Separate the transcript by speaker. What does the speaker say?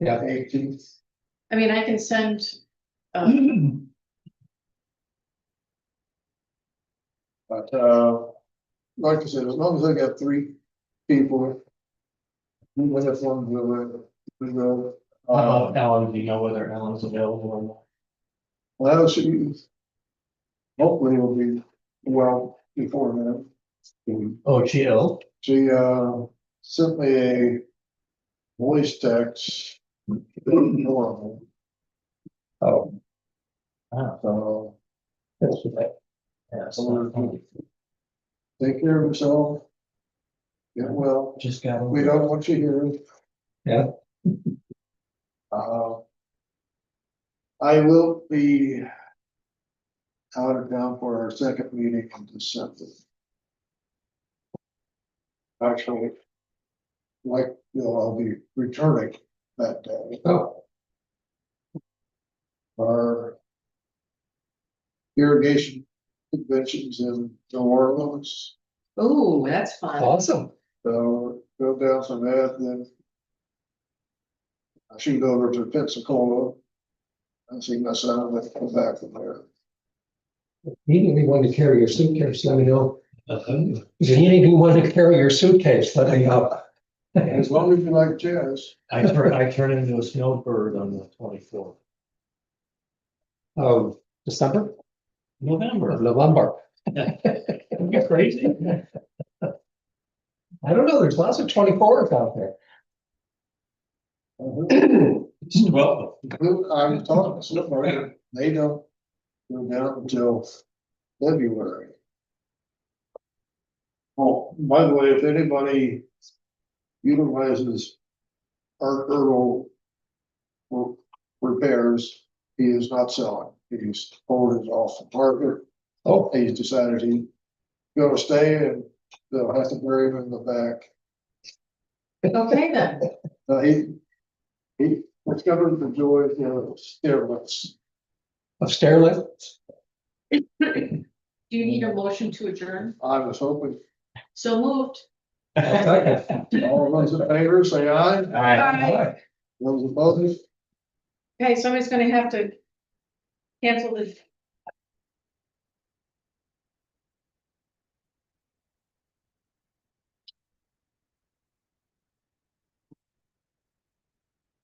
Speaker 1: Yeah.
Speaker 2: Eighteenth.
Speaker 3: I mean, I can send, um,
Speaker 1: Well,
Speaker 2: But, uh, like I said, as long as I got three people. With us on the, we will.
Speaker 1: How
Speaker 4: Um,
Speaker 2: Uh,
Speaker 1: about Alan, do you know whether Alan's available
Speaker 2: well, she. Hopefully will be well before then.
Speaker 1: or not? Oh, she ill?
Speaker 2: She, uh, sent me a voice text. Horrible,
Speaker 1: Oh. Wow.
Speaker 2: so
Speaker 1: that's what that- Oh. Yeah, it's not funny.
Speaker 2: take care of yourself. Get well,
Speaker 1: Just got.
Speaker 2: we don't want you here.
Speaker 1: Yeah.
Speaker 2: Uh. I will be. Out of town for our second meeting in December. Actually. Like, you know, I'll be returning that day
Speaker 1: Oh,
Speaker 2: our. Irrigation conventions in New Orleans,
Speaker 3: oh, that's fun.
Speaker 1: awesome.
Speaker 2: so go down some that, then. I shoot over to Pensacola. And see my son with come back from there.
Speaker 4: Immediately want to carry your suitcase, let me know.
Speaker 1: Uh-huh.
Speaker 4: If you need anything want to carry your suitcase, let me know.
Speaker 2: As long as you like jazz,
Speaker 1: I turn, I turn into a snowbird on the twenty-fourth,
Speaker 4: Um, December, or
Speaker 1: November.
Speaker 4: November.
Speaker 1: You're crazy.
Speaker 4: I don't know, there's lots of twenty-fours out there.
Speaker 2: Uh-huh.
Speaker 1: It's twelve.
Speaker 2: I'm talking, so far, they don't. Go down until February. Oh, by the way, if anybody. Utilizes. Art Erdl. for Repairs, he is not selling, he's ordered off the partner,
Speaker 4: Oh,
Speaker 2: he's decided he. Gonna stay and they'll have to bury him in the back.
Speaker 3: Okay, then.
Speaker 2: Uh, he, he discovered the joy of the stairlifts.
Speaker 4: of Sterling,
Speaker 3: Do you need a motion to adjourn?
Speaker 2: I was hoping,
Speaker 3: So moved.
Speaker 2: all those in favor, say aye,
Speaker 1: All right.
Speaker 3: Bye.
Speaker 2: those opposed,
Speaker 3: Okay, somebody's gonna have to cancel the